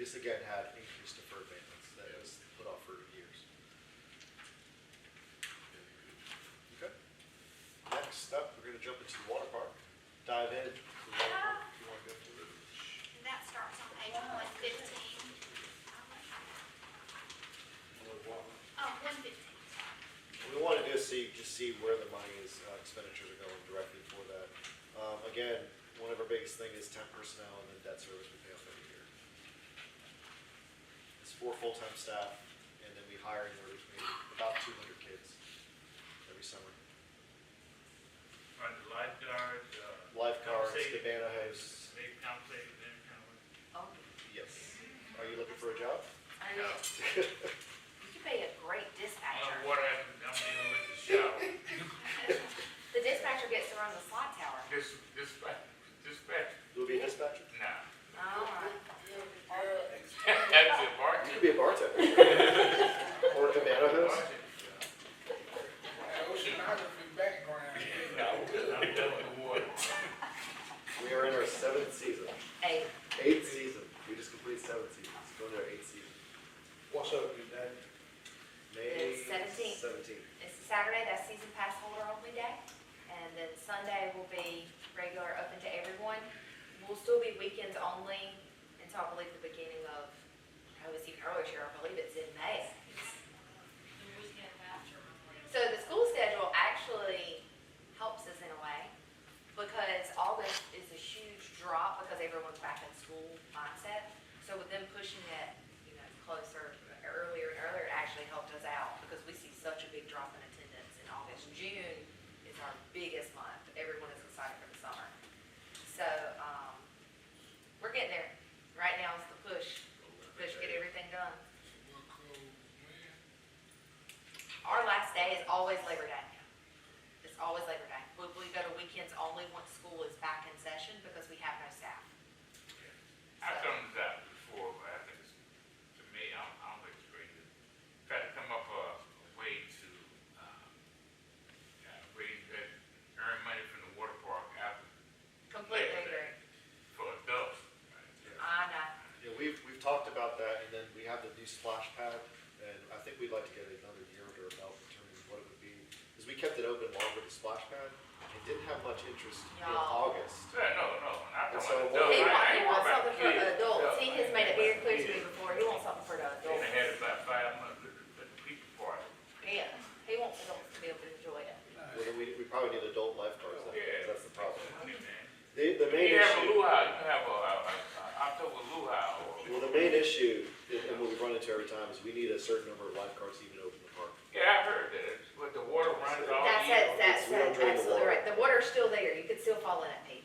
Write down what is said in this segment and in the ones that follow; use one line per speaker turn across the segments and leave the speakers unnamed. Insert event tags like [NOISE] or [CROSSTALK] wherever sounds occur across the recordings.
this again had increased deferred maintenance that was put off for years. Okay. Next up, we're gonna jump into the water park, dive in. to the water park. Do you wanna go to it?
And that starts on page one fifteen. Oh, one fifteen, sorry.
What We want to do is see, just see where the money is, uh, expenditures are going directly for that. Um, again, one of our biggest thing is temp personnel and then debt service we pay off every year. It's four full-time staff, and then we hire and we're maybe about two hundred kids every summer.
Right, the lifeguards, uh.
Lifeguards,
compensate-
cabana hosts,
They compensate them kind of. way.
Oh,
yes. Are you looking for a job?
I mean,
No.
you could be a great dispatcher.
Uh, what happened, I'm dealing with the shower.
The dispatcher gets to run the slot tower.
This, this, this,
You'll be a dispatcher?
nah. [LAUGHS] Oh,
All right.
That's a
You
bargain.
could be a bartender. [LAUGHS] Or a cabana host.
Oceanography background.
No, I'm done with the water.
We are in our seventh season,
Hey,
eighth season. We just completed seven seasons, going to our eighth season.
What's up, you daddy?
May
The 17th.
Seventeenth.
it's Saturday, that's season pass holder only day. And then Sunday will be regular, open to everyone. We'll still be weekends only until I believe the beginning of, oh, it's even earlier this year, I believe it's in May.
The weekend after Memorial.
So the school schedule actually helps us in a way because August is a huge drop because everyone's back in school mindset. So with them pushing it, you know, closer, earlier and earlier, it actually helped us out because we see such a big drop in attendance in August. June is our biggest month. Everyone is excited for the summer. So, um, we're getting there. Right now is the push, push, get everything done.
We'll call man.
Our last day is always Labor Day. It's always Labor Day. We, we go to weekends only once school is back in session because we have no staff.
I come to that before, but I think it's, to me, I'm, I'm experienced. Try to come up a a way to, um, uh, raise that, earn money from the water park after,
Completely agree.
for adults. right?
I know.
Yeah, we've, we've talked about that, and then we have the new splash pad, and I think we'd like to get another year under our belt in terms of what it would be. Because we kept it open longer, the splash pad, and didn't have much interest in
No.
August.
Yeah, no, no, not the
So what-
one adult.
He
I-
wants,
I
he wants
ain't worried about
something for
kids.
adults. He
No,
has
I
made it
ain't
very clear
worried
to
about
me
kids.
before, he wants something for the
Then I
adults.
had about five months at the- at the people party.
Yeah, he wants adults to be able to enjoy it.
Well, then we, we probably need adult lifeguards then, 'cause
Yeah.
that's the problem.
Funny, man.
The, the
You
main
can have a
issue,
luau, you can have a, a, a October luau or,
well, the main issue, and and what we run into every time, is we need a certain number of lifeguards to even open the park.
yeah, I heard that, but the water runs all
That's it,
year.
that's
We don't
it,
drain the
absolutely
water.
right. The water's still there, you could still fall in it, Pete.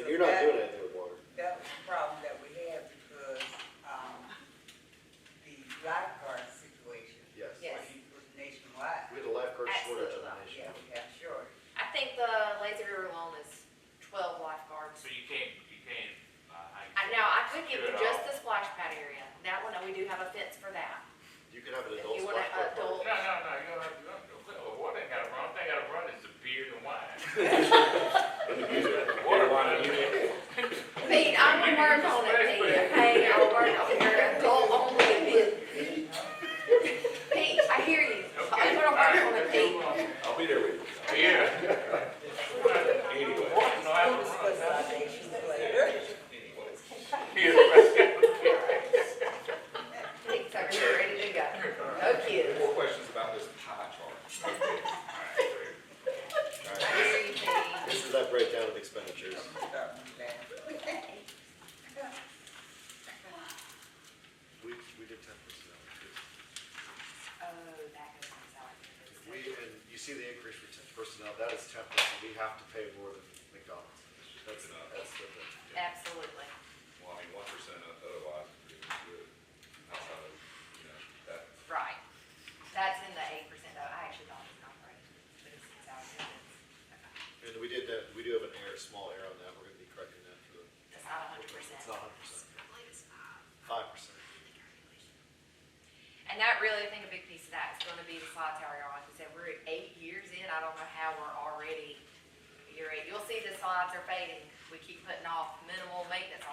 And you're not doing anything with water.
That was the problem that we had because, um, the lifeguard situation
Yes.
Yeah.
was was nationwide.
We had a lifeguard shortage in
Absolutely
the
not,
nation.
Yeah, yeah, sure.
I think the Lazy River alone is twelve lifeguards.
So you can't, you can't, uh,
I
I.
know, I could give you
Good
just
all.
the splash pad area. That one, uh, we do have a fence for that.
You could have an
If
adult
you want an
lifeguard.
No,
party.
no, no, you don't have to, you don't, water ain't gotta run, thing gotta run is the beer and wine. Water runs.
Pete, I'm gonna work on it, Pete, okay? I'll work on your adult only bit. Pete, I hear you. I'm gonna work on it, Pete.
I'll be there with
[LAUGHS]
you.
Yeah.
Anyway.
Water know how to
We'll
run.
discuss our issues later. [LAUGHS]
Yeah, right.
Pete's over here, ready to go. No [LAUGHS] kids.
More questions about this pie chart.
I hear you, Pete.
This is that breakdown of expenditures.
Start laughing. [LAUGHS]
We, we did ten personnel. too.
Oh, that goes on
We,
salad.
and you see the increase for temp personnel, that is temp personnel, we have to pay more than McDonald's. That's, that's the thing.
Absolutely.
Well, I mean, one percent otherwise would be good. Outside of, you know, that.
Right. That's in the eight percent though. I actually thought it was not right. But it's in salary benefits.
And we did that, we do have an error, small error on that, we're gonna be correcting that for the.
Okay. It's not a hundred percent.
It's not hundred percent, five percent.
And that really, I think a big piece of that is gonna be the slide tower, y'all. Like I said, we're eight years in. I don't know how we're already, year eight. You'll see the slides are fading. We keep putting off minimal maintenance